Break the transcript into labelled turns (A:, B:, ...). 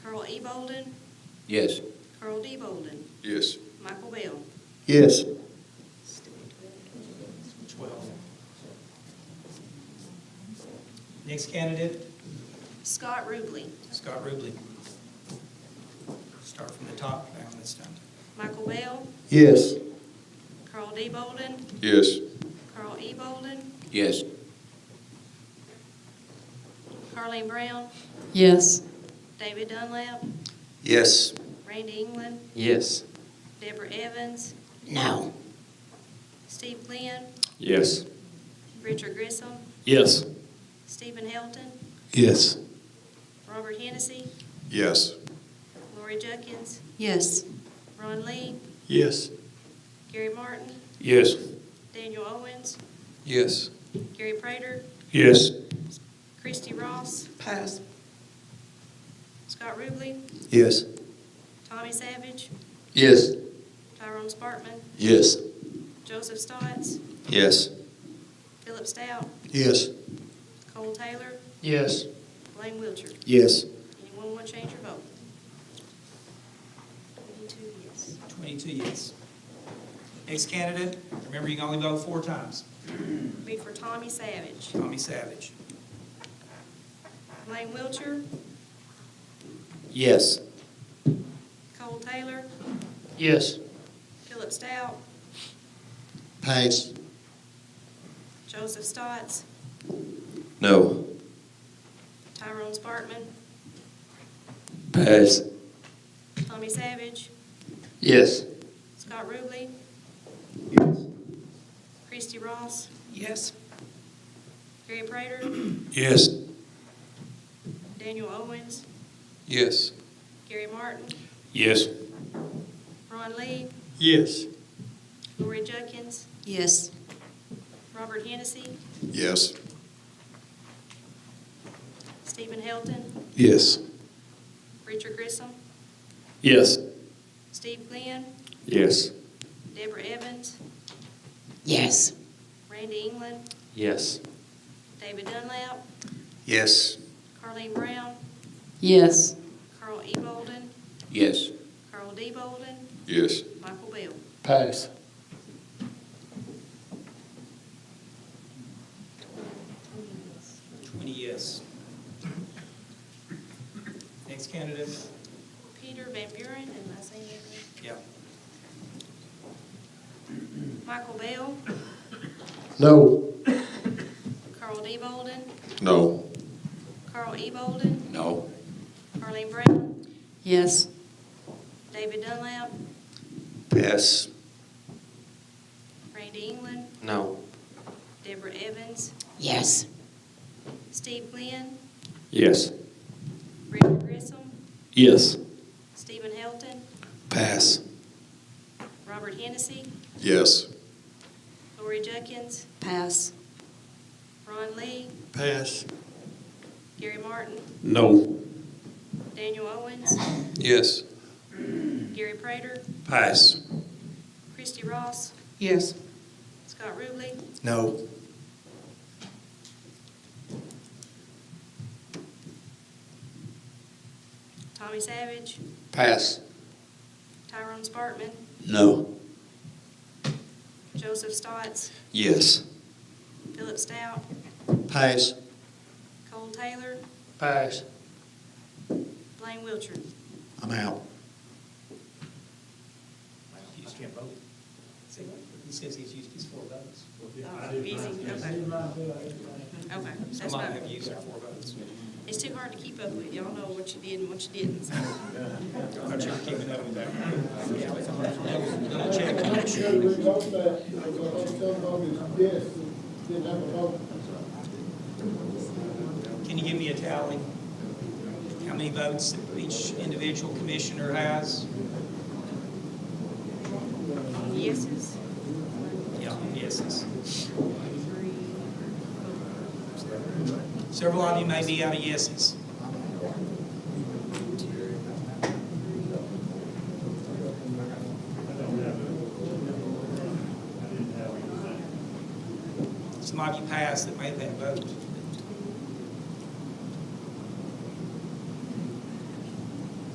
A: E. Bolden,
B: Yes.
A: Carl D. Bolden,
C: Yes.
A: Michael Bell.
D: Yes.
E: Twelve. Next candidate,
A: Scott Ruble,
E: Scott Ruble. Start from the top down this time.
A: Michael Bell,
D: Yes.
A: Carl D. Bolden,
C: Yes.
A: Carl E. Bolden,
B: Yes.
A: Carleen Brown,
F: Yes.
A: David Dunlap,
D: Yes.
A: Randy England,
D: Yes.
A: Deborah Evans,
D: No.
A: Steve Glenn,
C: Yes.
A: Richard Grissom,
D: Yes.
A: Stephen Helton,
D: Yes.
A: Robert Hennessy,
C: Yes.
A: Lori Jenkins,
F: Yes.
A: Ron Lee,
D: Yes.
A: Gary Martin,
C: Yes.
A: Daniel Owens,
C: Yes.
A: Gary Prater,
C: Yes.
A: Christie Ross,
D: Pass.
A: Scott Ruble,
D: Yes.
A: Tommy Savage,
D: Yes.
A: Tyrone Spartman,
D: Yes.
A: Joseph Stotts,
D: Yes.
A: Philip Stout,
D: Yes.
A: Cole Taylor,
D: Yes.
A: Blaine Wiltshire.
D: Yes.
A: Anyone want to change your vote? Twenty-two yes.
E: Twenty-two yes. Next candidate, remember you can only vote four times,
A: Be for Tommy Savage,
E: Tommy Savage.
A: Blaine Wiltshire,
D: Yes.
A: Cole Taylor,
D: Yes.
A: Philip Stout,
D: Pass.
A: Joseph Stotts,
D: No.
A: Tyrone Spartman,
D: Pass.
A: Tommy Savage,
D: Yes.
A: Scott Ruble,
D: Yes.
A: Christie Ross,
E: Yes.
A: Gary Prater,
D: Yes.
A: Daniel Owens,
D: Yes.
A: Gary Martin,
D: Yes.
A: Ron Lee,
D: Yes.
A: Lori Jenkins,
F: Yes.
A: Robert Hennessy,
C: Yes.
A: Stephen Helton,
D: Yes.
A: Richard Grissom,
D: Yes.
A: Steve Glenn,
D: Yes.
A: Deborah Evans,
F: Yes.
A: Randy England,
D: Yes.
A: David Dunlap,
D: Yes.
A: Carleen Brown,
F: Yes.
A: Carl E. Bolden,
B: Yes.
A: Carl D. Bolden,
C: Yes.
A: Michael Bell.
D: Pass.
E: Twenty yes. Next candidate,
A: Peter Van Buren, am I saying that
E: yeah,
A: right? Michael Bell,
D: No.
A: Carl D. Bolden,
C: No.
A: Carl E. Bolden,
B: No.
A: Carleen Brown,
F: Yes.
A: David Dunlap,
D: Pass.
A: Randy England,
D: No.
A: Deborah Evans,
F: Yes.
A: Steve Glenn,
D: Yes.
A: Richard Grissom,
D: Yes.
A: Stephen Helton,
D: Pass.
A: Robert Hennessy,
C: Yes.
A: Lori Jenkins,
F: Pass.
A: Ron Lee,
D: Pass.
A: Gary Martin,
D: No.
A: Daniel Owens,
D: Yes.
A: Gary Prater,
D: Pass.
A: Christie Ross,
F: Yes.
A: Scott Ruble,
D: No.
A: Tommy Savage,
D: Pass.
A: Tyrone Spartman,
D: No.
A: Joseph Stotts,
D: Yes.
A: Philip Stout,
D: Pass.
A: Cole Taylor,
D: Pass.
A: Blaine Wiltshire.
D: I'm out.
E: you just can't vote. See, He says he's used his four votes.
A: Easy, okay. Okay, that's
E: Some
A: fine.
E: might have used their four votes.
A: It's too hard to keep up with. Y'all know what you did and what you didn't. so.
E: I'm not keeping up with that. Can you give me a tally? How many votes that each individual commissioner has?
A: Yeses?
E: Yeah, yeses.
A: Three.
E: Several of you may be out of yeses. Some of you passed that made that vote.